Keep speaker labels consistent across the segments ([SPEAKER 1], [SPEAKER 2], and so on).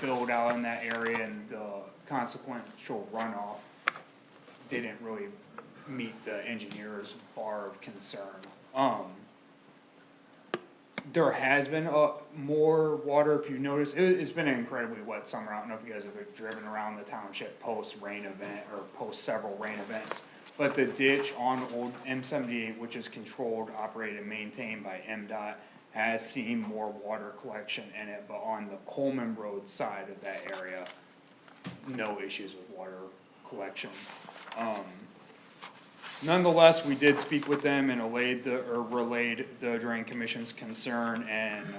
[SPEAKER 1] build out in that area and the consequential runoff didn't really meet the engineer's bar of concern. Um, there has been uh more water, if you notice, it, it's been an incredibly wet summer, I don't know if you guys have driven around the township post rain event or post several rain events. But the ditch on old M seventy-eight, which is controlled, operated, and maintained by MDOT, has seen more water collection in it, but on the Coleman Road side of that area, no issues with water collection. Um, Nonetheless, we did speak with them and allayed the, or relayed the drain commission's concern and, uh,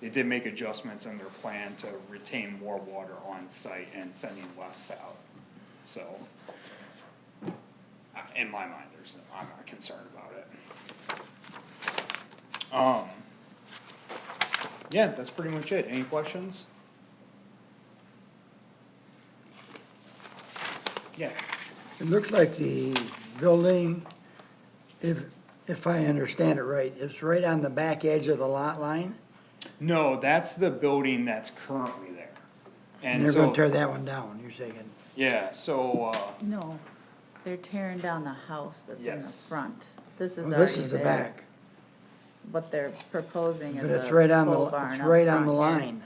[SPEAKER 1] they did make adjustments in their plan to retain more water on site and sending less out, so. uh, In my mind, there's, no- I'm not concerned about it. Um, yeah, that's pretty much it. Any questions? Yeah,
[SPEAKER 2] It looks like the building, if, if I understand it right, it's right on the back edge of the lot line.
[SPEAKER 1] No, that's the building that's currently there.
[SPEAKER 2] And
[SPEAKER 1] And
[SPEAKER 2] they're gonna tear
[SPEAKER 1] so,
[SPEAKER 2] that one down, you're saying.
[SPEAKER 1] yeah, so, uh,
[SPEAKER 3] No, they're tearing down the house that's in the
[SPEAKER 1] Yes.
[SPEAKER 3] front. This is
[SPEAKER 2] Well, this
[SPEAKER 3] already
[SPEAKER 2] is the
[SPEAKER 3] there.
[SPEAKER 2] back,
[SPEAKER 3] What they're proposing
[SPEAKER 2] but
[SPEAKER 3] is a
[SPEAKER 2] it's right on the,
[SPEAKER 3] pole barn
[SPEAKER 2] it's
[SPEAKER 3] up
[SPEAKER 2] right on the
[SPEAKER 3] front here.
[SPEAKER 2] line.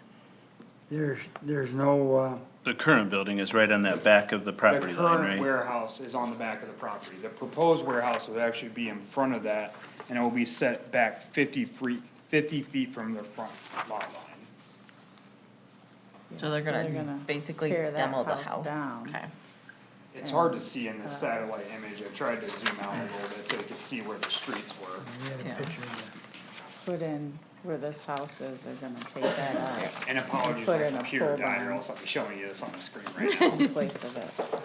[SPEAKER 2] There's, there's no, uh,
[SPEAKER 4] The current building is right on that back of the
[SPEAKER 1] the
[SPEAKER 4] property line,
[SPEAKER 1] current
[SPEAKER 4] right?
[SPEAKER 1] warehouse is on the back of the property. The proposed warehouse would actually be in front of that, and it will be set back fifty feet, fifty feet from the front lot line.
[SPEAKER 5] So they're
[SPEAKER 3] So they're
[SPEAKER 5] gonna
[SPEAKER 3] gonna
[SPEAKER 5] basically
[SPEAKER 3] tear that
[SPEAKER 5] demo the
[SPEAKER 3] house
[SPEAKER 5] house.
[SPEAKER 3] down.
[SPEAKER 5] Okay.
[SPEAKER 1] It's hard to see in the satellite image, I tried to zoom out a little bit so you could see where the streets were.
[SPEAKER 2] we had a
[SPEAKER 5] Yeah.
[SPEAKER 2] picture of
[SPEAKER 3] Put in where this house is, they're gonna take that out
[SPEAKER 1] And apologies,
[SPEAKER 3] Put
[SPEAKER 1] my
[SPEAKER 3] in a
[SPEAKER 1] computer
[SPEAKER 3] pole
[SPEAKER 1] died, or
[SPEAKER 3] barn.
[SPEAKER 1] else I'll be showing you this on the screen right now.
[SPEAKER 3] in place of it,
[SPEAKER 2] that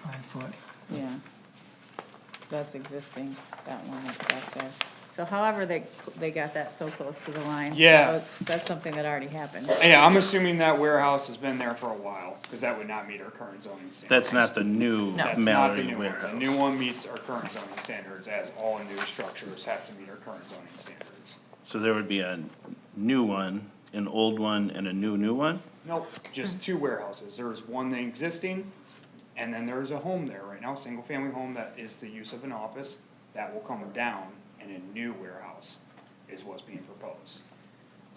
[SPEAKER 2] five foot.
[SPEAKER 3] yeah. That's existing, that one that's back there. So however they, they got that so close to the line. that
[SPEAKER 1] Yeah.
[SPEAKER 3] was- That's something that already happened.
[SPEAKER 1] Yeah, I'm assuming that warehouse has been there for a while, cause that would not meet our current zoning standards.
[SPEAKER 4] That's not the new
[SPEAKER 5] No.
[SPEAKER 1] That's not the
[SPEAKER 4] Mallory
[SPEAKER 1] new one. The
[SPEAKER 4] warehouse.
[SPEAKER 1] new one meets our current zoning standards, as all new structures have to meet our current zoning standards.
[SPEAKER 4] So there would be a new one, an old one, and a new, new one?
[SPEAKER 1] Nope, just two warehouses. There's one existing, and then there's a home there right now, single-family home that is the use of an office. That will come down, and a new warehouse is what's being proposed.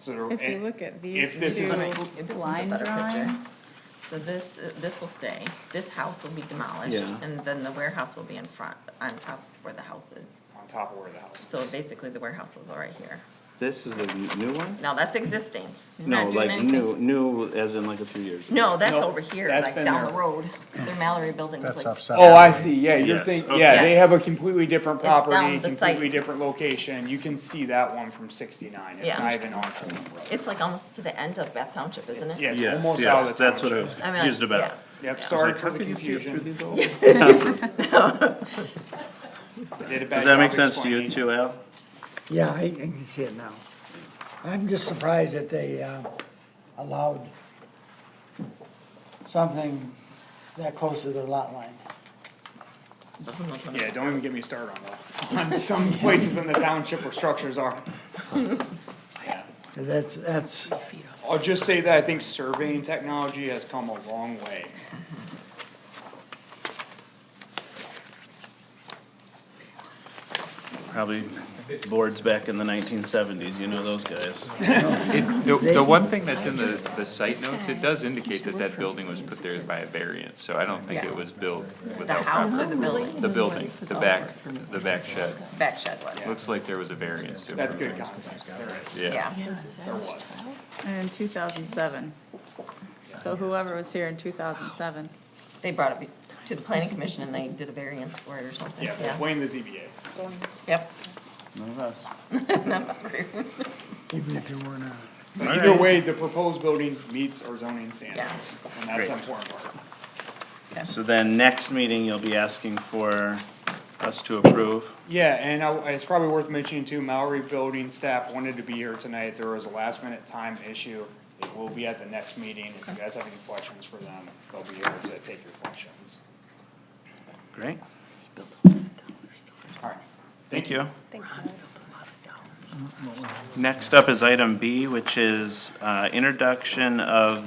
[SPEAKER 1] So there.
[SPEAKER 3] If you
[SPEAKER 1] and
[SPEAKER 3] look at these
[SPEAKER 1] if this is
[SPEAKER 3] two-
[SPEAKER 1] an-
[SPEAKER 3] Right.
[SPEAKER 5] This one's a
[SPEAKER 3] line
[SPEAKER 5] better picture.
[SPEAKER 3] drawings.
[SPEAKER 5] So this, uh, this will stay, this house will be demolished,
[SPEAKER 4] Yeah.
[SPEAKER 5] and then the warehouse will be in front, on top where the house is.
[SPEAKER 1] On top of where the house is.
[SPEAKER 5] So basically, the warehouse will go right here.
[SPEAKER 4] This is the new one?
[SPEAKER 5] Now, that's existing, They're
[SPEAKER 4] No,
[SPEAKER 5] not doing
[SPEAKER 4] like
[SPEAKER 5] anything.
[SPEAKER 4] new, new as in like a few years.
[SPEAKER 5] No, that's
[SPEAKER 1] Nope,
[SPEAKER 5] over here,
[SPEAKER 1] that's
[SPEAKER 5] like
[SPEAKER 1] been
[SPEAKER 5] down
[SPEAKER 1] there.
[SPEAKER 5] the road, their Mallory building is
[SPEAKER 6] That's
[SPEAKER 5] like,
[SPEAKER 6] offset.
[SPEAKER 1] Oh, I see, yeah, you're
[SPEAKER 4] Yes,
[SPEAKER 1] thinking,
[SPEAKER 4] okay.
[SPEAKER 1] yeah, they
[SPEAKER 5] Yes.
[SPEAKER 1] have a completely different
[SPEAKER 5] It's down
[SPEAKER 1] property,
[SPEAKER 5] the site.
[SPEAKER 1] completely different location, you can see that one from sixty-nine, it's
[SPEAKER 5] Yeah.
[SPEAKER 1] not even on Fulton Road.
[SPEAKER 5] it's like almost to the end of Bath Township, isn't it?
[SPEAKER 1] Yeah, it's
[SPEAKER 4] Yes,
[SPEAKER 1] almost out of the
[SPEAKER 4] yes, that's what I was
[SPEAKER 5] I mean,
[SPEAKER 4] confused about.
[SPEAKER 5] yeah.
[SPEAKER 1] Yep,
[SPEAKER 5] Yeah.
[SPEAKER 1] sorry
[SPEAKER 4] Like,
[SPEAKER 1] for
[SPEAKER 4] how
[SPEAKER 1] the
[SPEAKER 4] can you see it through
[SPEAKER 1] confusion,
[SPEAKER 4] these old-
[SPEAKER 1] I did a bad
[SPEAKER 4] Does that
[SPEAKER 1] job
[SPEAKER 4] make sense to you
[SPEAKER 1] explaining.
[SPEAKER 4] too, Al?
[SPEAKER 2] Yeah, I, I can see it now. I'm just surprised that they, uh, allowed something that close to their lot line.
[SPEAKER 5] So who knows when
[SPEAKER 1] Yeah,
[SPEAKER 5] it-
[SPEAKER 1] don't even get me started on that, on some places in the township where structures are. Yeah.
[SPEAKER 2] 'Cause that's, that's.
[SPEAKER 1] I'll just say that I think surveying technology has come a long way.
[SPEAKER 4] Probably boards back in the nineteen seventies, you know those guys.
[SPEAKER 7] It, the, the one thing that's in the, the site notes, it does indicate that that building was put there by a variance, so I don't think it was built
[SPEAKER 5] The
[SPEAKER 7] without
[SPEAKER 5] house or
[SPEAKER 7] proper.
[SPEAKER 5] the building,
[SPEAKER 7] The building, the back, the back shed,
[SPEAKER 5] back shed was,
[SPEAKER 7] looks like there was a variance to
[SPEAKER 1] That's
[SPEAKER 7] it,
[SPEAKER 1] good context, there is,
[SPEAKER 7] yeah.
[SPEAKER 5] yeah.
[SPEAKER 1] there was.
[SPEAKER 3] In two thousand seven. So whoever was here in two thousand seven,
[SPEAKER 5] They brought it be- to the planning commission and they did a variance for it or something,
[SPEAKER 1] Yeah, we'll
[SPEAKER 5] yeah.
[SPEAKER 1] blame the ZBA.
[SPEAKER 5] Yep,
[SPEAKER 4] None of us.
[SPEAKER 5] none of us were here.
[SPEAKER 2] Even if you weren't on.
[SPEAKER 1] But
[SPEAKER 4] All
[SPEAKER 1] Either
[SPEAKER 4] right.
[SPEAKER 1] way, the proposed building meets our zoning standards,
[SPEAKER 5] Yes.
[SPEAKER 1] and that's
[SPEAKER 4] Great.
[SPEAKER 1] the important part.
[SPEAKER 4] So then next meeting, you'll be asking for us to approve.
[SPEAKER 1] Yeah, and I, it's probably worth mentioning too, Mallory Building staff wanted to be here tonight, there was a last minute time issue. It will be at the next meeting, if you guys have any questions for them, they'll be here to take your questions.
[SPEAKER 4] Great,
[SPEAKER 1] Alright,
[SPEAKER 4] thank you.
[SPEAKER 8] Thanks, guys.
[SPEAKER 4] Next up is item B, which is uh, introduction of